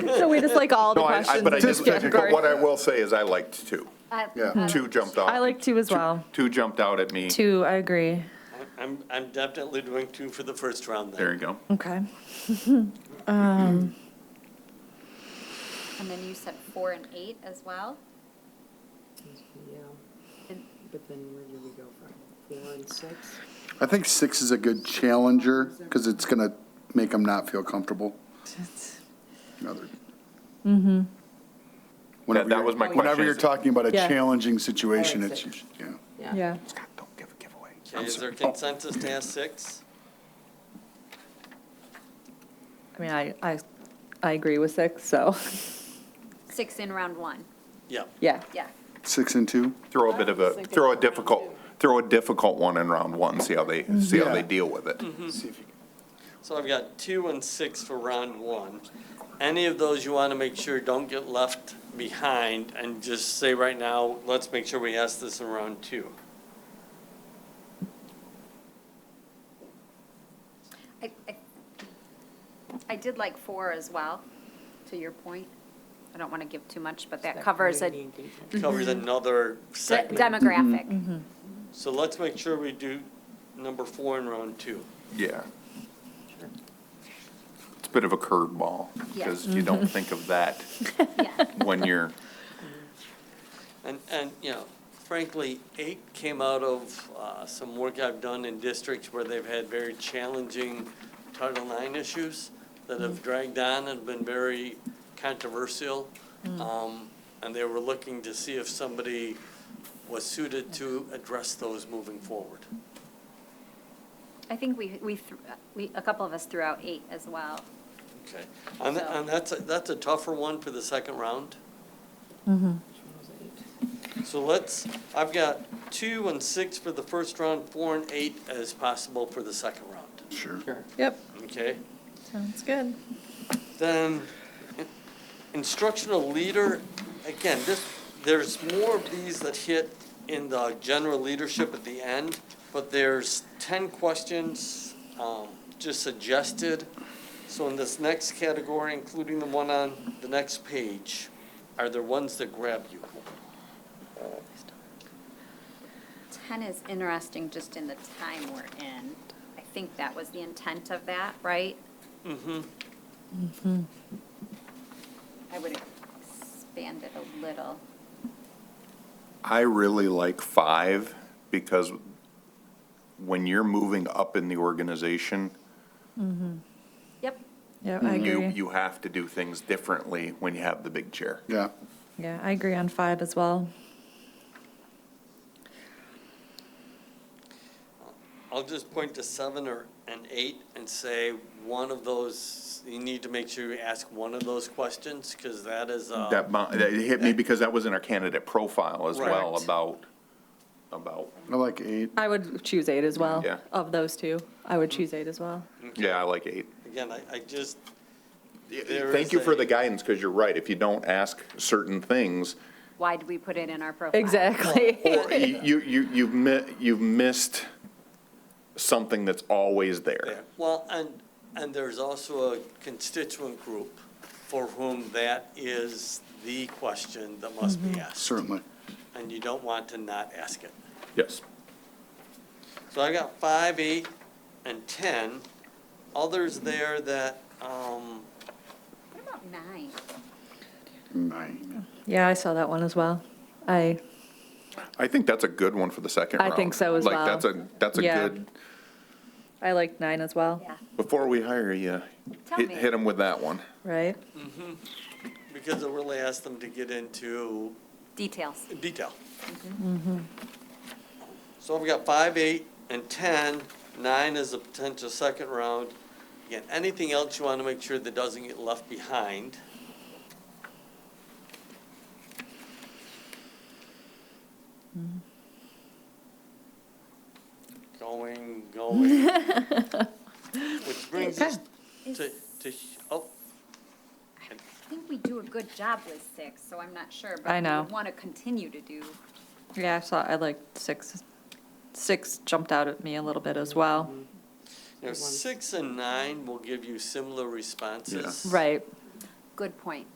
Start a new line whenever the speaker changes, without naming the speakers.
So we just like all the
No, I, I-
questions.
but I
in
did,
this
but what
category.
I will say is I liked two.
I-
Yeah.
I
Two jumped out.
I like two as well.
Two jumped out at me.
Two, I agree.
I'm, I'm definitely doing two for the first round
There
then.
you go.
Okay.
And then you said four and eight as well?
Yeah,
And-
but then where do we go from? Four and six?
I think six is a good challenger because it's going to make them not feel comfortable. Another. Whenever
that
you're-
was my
Whenever
question.
you're talking about a
Yeah.
challenging situation,
I
it's,
see.
yeah.
Yeah.
God, don't give a giveaway.
Okay, is there consensus to ask six?
I mean, I, I, I agree with six, so,
Six in round one,
Yeah.
yeah.
yeah.
Six and two?
Throw a bit of a, throw a difficult, throw a difficult one in round one, see how they, see how they
Yeah.
deal with it.
Mm-hmm.
So I've got two and six for round one. Any of those you want to make sure don't get left behind and just say right now, let's make sure we ask this in round two.
I, I- I did like four as well, to your point. I don't want to give too much, but that covers a de-
Community engagement.
Covers another segment.
demographic.
So let's make sure we do number four in round two.
Yeah. It's a bit of a curveball
Yeah.
because you
Mm-hmm.
don't think of that
Yeah,
when you're,
And, and, you know, frankly, eight came out of uh, some work I've done in districts where they've had very challenging Title IX issues that have dragged on and been very controversial. Um, And they were looking to see if somebody was suited to address those moving forward.
I think we, we, thr- we, a couple of us threw out eight as well.
Okay. And,
So-
and that's, a- that's a tougher one for the second round.
Mm-hmm.
Which one was eight?
So let's, I've got two and six for the first round, four and eight as possible for the second round.
Sure.
Yep,
Okay?
sounds good.
Then instructional leader, again, this, there's more of these that hit in the general leadership at the end, but there's ten questions, um, just suggested. So in this next category, including the one on the next page, are there ones that grab you?
Ten is interesting just in the time we're in. I think that was the intent of that, right?
Mm-hmm.
I would expand it a little.
I really like five because when you're moving up in the organization,
Yep,
Yeah, I
you,
agree.
you have to do things differently when you have the big chair.
Yeah.
Yeah, I agree on five as well.
I'll just point to seven or an eight and say one of those, you need to make sure you ask one of those questions, because that is, uh,
That, mo- that hit me because that was in our candidate profile as well
Correct.
about, about,
I like eight.
I would choose eight as well.
Yeah.
Of those two, I would choose eight as well.
yeah, I like eight.
again, I, I just, There
Thank
is
you for
a-
the guidance because you're right. If you don't ask certain things,
why did we put it in our profile?
Exactly.
or you, you, you, you've mi- you've missed something that's always there.
well, and, and there's also a constituent group for whom that is the question that must be asked.
Certainly.
And you don't want to not ask it.
Yes.
So I got five, eight, and ten. Others there that, um,
What about Oh, nine?
Nine.
Yeah, I saw that one as well. I,
I think that's a good one for the second
I
round.
think so as well.
Like, that's a, that's a
Yeah.
good,
I like nine as well,
Yeah,
before we hire you,
Tell
hit,
me.
hit them with that one.
right?
because it really asked them to get into
details.
detail. Mm-hmm. So we've got five, eight, and 10. Nine is a potential second round. Again, anything else you want to make sure that doesn't get left behind? Mm-hmm. Going, going. Which brings us
Is-
to, to, oh,
I think we do a good job with six, so I'm not sure,
I
but
know.
we want to continue to do.
Yeah, I saw, I liked six. Six jumped out at me a little bit as well.
you know, six and nine will give you similar responses.
Right.
good point.